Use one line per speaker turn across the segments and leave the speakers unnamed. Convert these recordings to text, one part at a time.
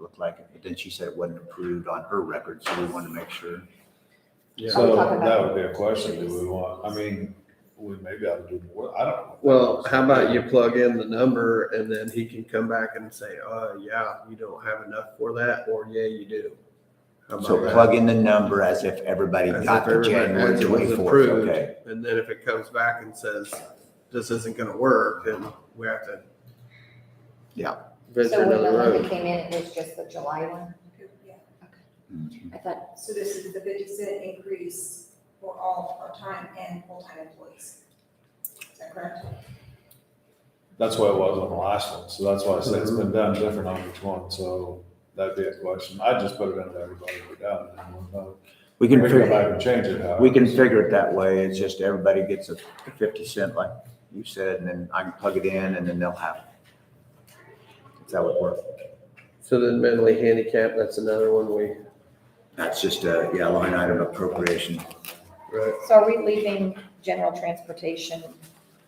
looked like it, but then she said it wasn't approved on her record, so we wanted to make sure.
Yeah.
So
Talk about-
that would be a question, do we want, I mean, we maybe ought to do more, I don't. know.
Well, how about you plug in the number and then he can come back and say, uh, yeah, you don't have enough for that, or yeah, you do. How about
So
that?
plug in the number as if everybody
As
got
if
the
everybody-
January
as it was
twenty-fourth,
approved,
okay?
And then if it comes back and says, this isn't gonna work, then we have to.
Yeah.
Venture
So when the
another
one that
road.
came in, it was just the July one?
Yeah,
Mhm.
I thought,
so this is the fifty cent increase for all part-time and full-time employees. Is that correct?
That's what it was on the last one, so that's why I said it's been
Mm-hmm.
done different on each one, so that'd be a question, I just put it into everybody we got. and then we'll know.
We
We
can
can go back
figure,
and change it out.
we can figure it that way, it's just everybody gets a fifty cent like you said, and then I can plug it in and then they'll have it. That's how it works.
So then mentally handicapped, that's another one we,
That's just a, yeah, line item appropriation.
right?
so are we leaving general transportation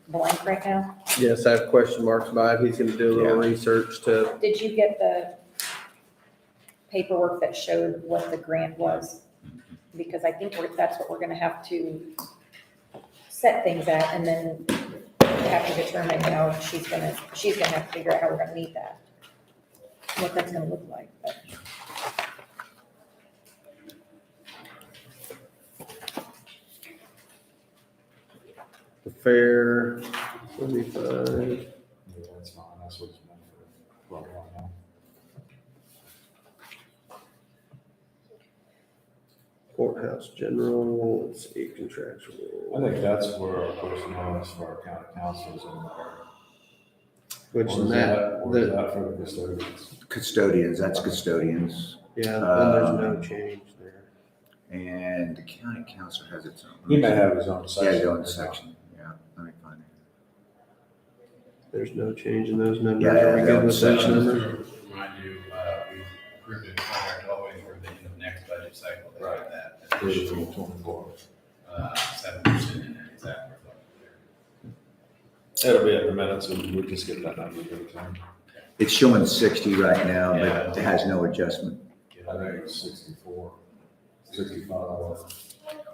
blank right now?
Yes, I have question marks by it. He's gonna do a little research to,
Did you get the paperwork that showed what the grant was? Because I think we're- that's what we're gonna have to set things at and then have to determine how she's gonna, she's gonna have to figure out how we're gonna meet that. What that's gonna look like, but.
the fair, seventy-five.
Yeah, that's fine, that's what it's meant for. uh, Well, right now.
Courthouse general, let's see, contractual,
I think that's where our personnel is for our county councils and our.
which
Or
is
is
that,
Or is
the,
that for the custodians?
Custodians, that's custodians,
yeah, then there's
Um,
no change there.
and the county council has its own.
He may have his own
Yeah,
section.
their own section, yeah, let me find it.
There's no change in those numbers.
Yeah,
Are we
yeah,
good with
that
those
was
numbers?
Remind you, uh, we approved a contract always for the end of next budget cycle. They have
Right.
That
For the
additional,
24.
uh, seven percent in there, is that reflected there?
It'll be in the minutes, and we'll just get that number every time.
It's showing sixty right now, but it has no adjustment.
I think it's sixty-four, sixty-five.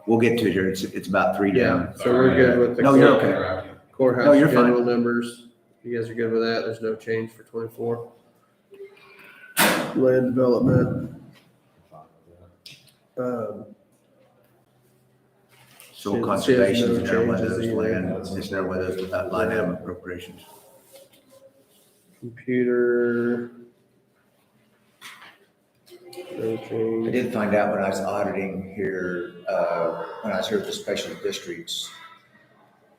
We'll get to it here, it's, it's about three down.
Yeah, so we're good with the
No, you're
court-
okay.
Interrupt you.
No,
courthouse
you're fine.
general numbers. You guys are good with that? There's no change for twenty-four? Land development, um,
Soil
It says no
conservation is now one of
changes
those
either.
land, it's now one of those without uh, line item appropriations.
computer. No
I
change.
did find out when I was auditing here, uh, when I was here at the special districts,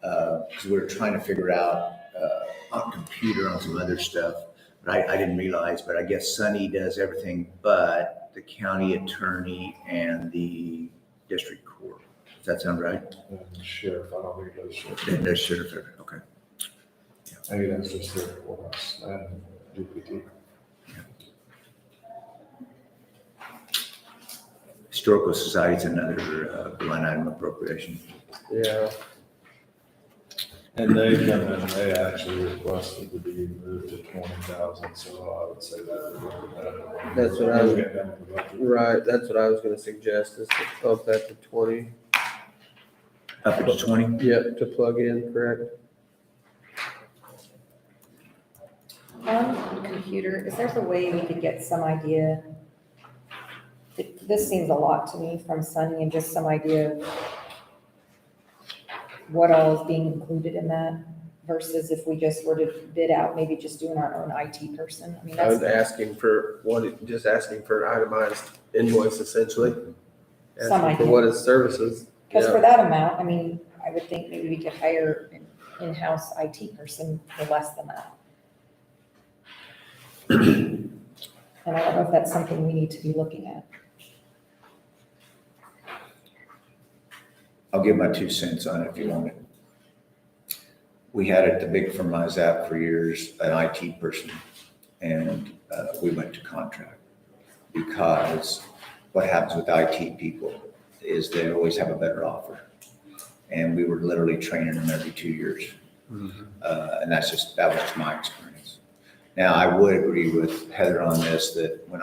because we were trying to figure out uh, on computer on some other stuff, but I, I didn't realize, but I guess Sunny does everything but the county attorney and the district court. Does that sound right?
And sheriff, I don't think it does sheriff.
Then there's sheriff, okay.
Maybe that's just their ordinance and DPD.
Historical society's another uh, line item appropriation.
Yeah,
And they come in, they actually requested to be moved to twenty thousand, so I would say that.
That's what I was-
Get them to vote.
right. That's what I was gonna suggest is to up that to twenty.
Up to twenty?
Yep, to plug in, correct?
On computer, is there a way we could get some idea? Th- This seems a lot to me from Sunny and just some idea of what all is being included in that versus if we just were to bid out, maybe just doing our own IT person. I mean,
I was
that's
asking for, what, just asking for an itemized invoice essentially.
Some
Asking for
idea.
what his services.
because
yeah.
for that amount, I mean, I would think maybe we could hire an in-house IT person for less than that. And I don't know if that's something we need to be looking at.
I'll give my two cents on it if you want it. We had at the big firm I was at for years, an IT person, and uh, we went to contract. Because what happens with IT people is they always have a better offer. And we were literally training them every two years. Uh, And that's just, that was just my experience. Now, I would agree with Heather on this, that when